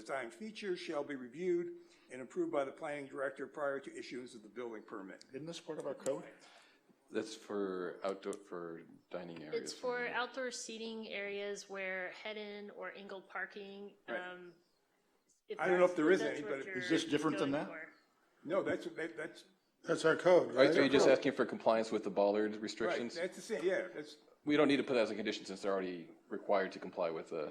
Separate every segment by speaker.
Speaker 1: time feature shall be reviewed and approved by the planning director prior to issuance of the building permit.
Speaker 2: Isn't this part of our code?
Speaker 3: That's for outdoor, for dining areas.
Speaker 4: It's for outdoor seating areas where head-in or angled parking, um. if
Speaker 1: I don't know
Speaker 4: that's-
Speaker 1: if there is
Speaker 4: that's
Speaker 1: any,
Speaker 4: what
Speaker 1: but it-
Speaker 2: is this
Speaker 4: you're
Speaker 2: different than
Speaker 4: going
Speaker 2: that?
Speaker 4: for.
Speaker 1: No, that's, that- that's,
Speaker 2: That's our code,
Speaker 3: Right, so
Speaker 2: right?
Speaker 3: you're just asking for compliance with the bollard
Speaker 1: right,
Speaker 3: restrictions?
Speaker 1: that's the same, yeah, that's,
Speaker 3: We don't need to put that as a condition since they're already required to comply with the,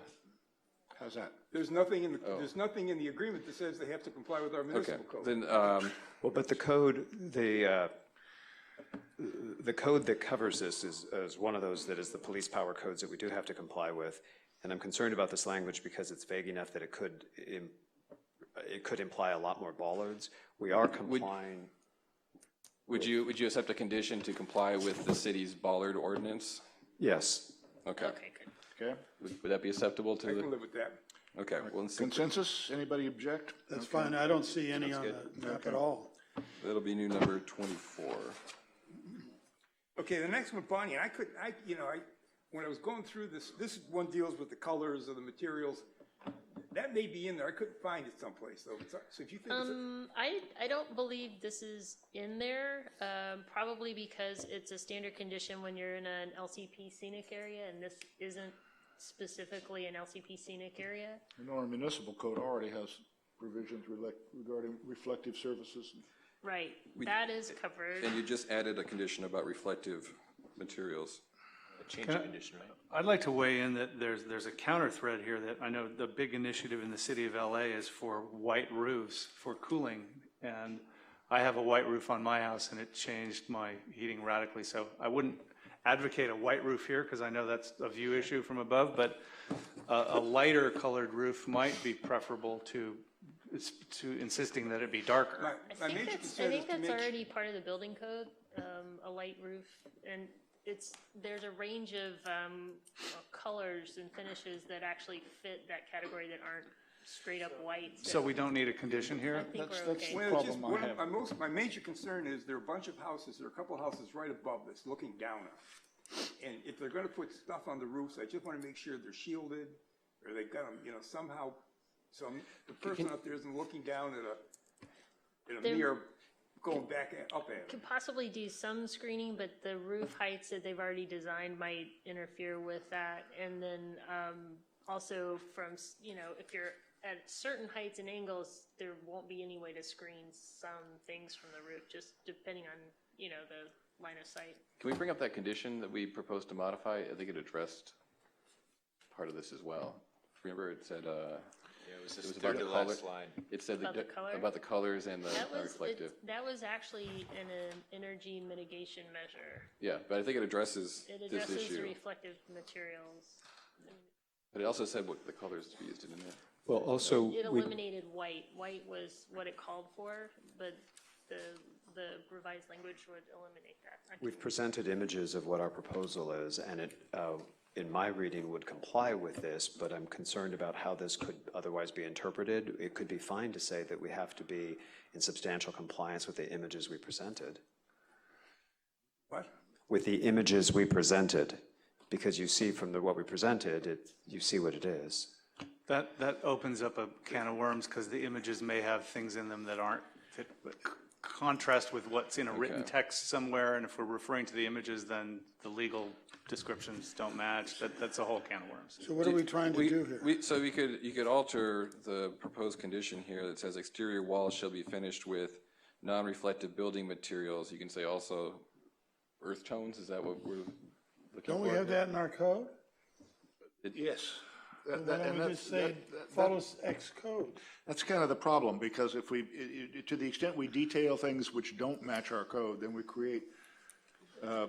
Speaker 2: How's that? Oh.
Speaker 1: there's nothing in, the there's nothing in the agreement that says they have to comply with our
Speaker 3: okay.
Speaker 1: municipal code.
Speaker 3: Then, um,
Speaker 5: Well, but the code, the, uh, the code that covers this is, is one of those that is the police power codes that we do have to comply with. And I'm concerned about this language because it's vague enough that it could, im- it could imply a lot more bollards. We are complying,
Speaker 3: would you, would you accept a condition to comply with the city's bollard ordinance?
Speaker 5: yes.
Speaker 3: Okay.
Speaker 4: Okay, good.
Speaker 2: Okay.
Speaker 3: Would would that be acceptable
Speaker 1: I can
Speaker 3: to,
Speaker 1: live with that.
Speaker 3: okay, well, let's see.
Speaker 2: Consensus? Anybody object?
Speaker 6: That's fine, I don't see any on the map at all.
Speaker 3: that'll be new number twenty-four.
Speaker 1: Okay, the next one, Bonnie, and I could, I, you know, I, when I was going through this, this one deals with the colors of the materials. That may be in there, I couldn't find it someplace, though, so so if you think, it's-
Speaker 4: Um, I, I don't believe this is in there, um, probably because it's a standard condition when you're in an LCP scenic area, and this isn't specifically an LCP scenic area.
Speaker 2: You know, our municipal code already has provisions relec- regarding reflective surfaces.
Speaker 4: Right, that is covered.
Speaker 3: And you just added a condition about reflective materials.
Speaker 7: Change the condition, right? I'd like to weigh in that there's, there's a counter thread here that I know the big initiative in the city of LA is for white roofs for cooling. And I have a white roof on my house and it changed my heating radically. So I wouldn't advocate a white roof here because I know that's a view issue from above, but a, a lighter colored roof might be preferable to, to insisting that it be darker.
Speaker 1: my, my
Speaker 4: I
Speaker 1: major
Speaker 4: think that's, I
Speaker 1: concern is
Speaker 4: think
Speaker 1: to
Speaker 4: that's
Speaker 1: make.
Speaker 4: already part of the building code, um, a light roof, and it's, there's a range of, um, colors and finishes that actually fit that category that aren't straight up white.
Speaker 7: So we don't need a condition
Speaker 4: I
Speaker 7: here?
Speaker 4: think
Speaker 2: that's-
Speaker 4: we're
Speaker 2: that's-
Speaker 4: okay.
Speaker 1: Well, it's just,
Speaker 2: Problem I
Speaker 1: one of
Speaker 2: have.
Speaker 1: my most, my major concern is there are a bunch of houses, there are a couple of houses right above this, looking down on. us. And if they're gonna put stuff on the roofs, I just wanna make sure they're shielded, or they've got them, you know, somehow, some, the person up there isn't looking down at a, at a
Speaker 4: There-
Speaker 1: mirror going back at, up at it.
Speaker 4: Could possibly do some screening, but the roof heights that they've already designed might interfere with that. And then um, also from, s- you know, if you're at certain heights and angles, there won't be any way to screen some things from the roof, just depending on, you know, the line of sight.
Speaker 3: Can we bring up that condition that we proposed to modify? I think it addressed part of this as well. Remember, it said, uh, it
Speaker 8: It was
Speaker 3: was
Speaker 8: just
Speaker 3: about
Speaker 8: third
Speaker 3: the
Speaker 8: to
Speaker 3: color.
Speaker 8: last line.
Speaker 3: It said the
Speaker 4: About the
Speaker 3: di-
Speaker 4: color?
Speaker 3: about the colors and the
Speaker 4: That
Speaker 3: the
Speaker 4: was,
Speaker 3: reflective.
Speaker 4: it- that was actually in an energy mitigation measure.
Speaker 3: Yeah, but I think it addresses
Speaker 4: It
Speaker 3: this
Speaker 4: addresses the
Speaker 3: issue.
Speaker 4: reflective materials.
Speaker 3: But it also said what the colors to be used in, didn't it?
Speaker 5: Well, also,
Speaker 4: It
Speaker 5: we,
Speaker 4: eliminated white. White was what it called for, but the, the revised language would eliminate that. I
Speaker 5: we've presented images of what our proposal is, and it, uh, in my reading, would comply with this, but I'm concerned about how this could otherwise be interpreted. It could be fine to say that we have to be in substantial compliance with the images we presented.
Speaker 1: What?
Speaker 5: with the images we presented, because you see from the, what we presented, it, you see what it is.
Speaker 7: That, that opens up a can of worms, because the images may have things in them that aren't, that c- contrast with what's in a written text somewhere, and if we're referring to the images, then the legal descriptions don't match, that, that's a whole can of worms.
Speaker 6: So what are we trying to
Speaker 3: We-
Speaker 6: do here?
Speaker 3: We, so we could, you could alter the proposed condition here that says exterior walls shall be finished with non-reflective building materials. You can say also earth tones, is that what we're looking for?
Speaker 6: Don't we have that in our code?
Speaker 2: Yes. That-
Speaker 6: Why
Speaker 2: that- and
Speaker 6: don't we
Speaker 2: that's-
Speaker 6: just say,
Speaker 2: that- that-
Speaker 6: follows X code?
Speaker 2: That's kind of the problem, because if we, i- i- to the extent we detail things which don't match our code, then we create uh,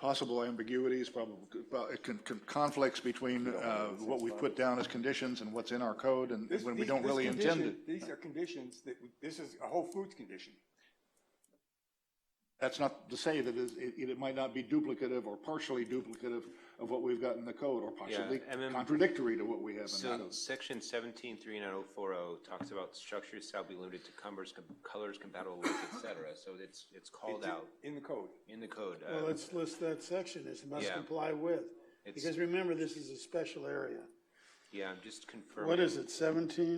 Speaker 2: possible ambiguities, probable, well, it can- can- conflicts between uh, what we put down as conditions and what's in our code, and
Speaker 1: This-
Speaker 2: when we
Speaker 1: these-
Speaker 2: don't
Speaker 1: this
Speaker 2: really intend it.
Speaker 1: condition- These are conditions that, we- this is a Whole Foods condition.
Speaker 2: That's not to say that it's- it, it might not be duplicative or partially duplicative of what we've got in the code, or possibly
Speaker 8: and then-
Speaker 2: contradictory to what we have in the
Speaker 8: So
Speaker 6: oh.
Speaker 2: code.
Speaker 8: section seventeen three nine oh four oh talks about structures shall be limited to cumbers, com- colors compatible with, et cetera. So it's, it's called
Speaker 1: It's in-
Speaker 8: out
Speaker 1: In the code.
Speaker 8: in the code.
Speaker 2: Uh,
Speaker 6: Well,
Speaker 8: Um,
Speaker 6: let's list that section, as must
Speaker 8: Yeah.
Speaker 6: comply with,
Speaker 8: It's-
Speaker 6: because remember, this is a special area.
Speaker 8: Yeah, I'm just confirming.
Speaker 6: What is it, seventeen?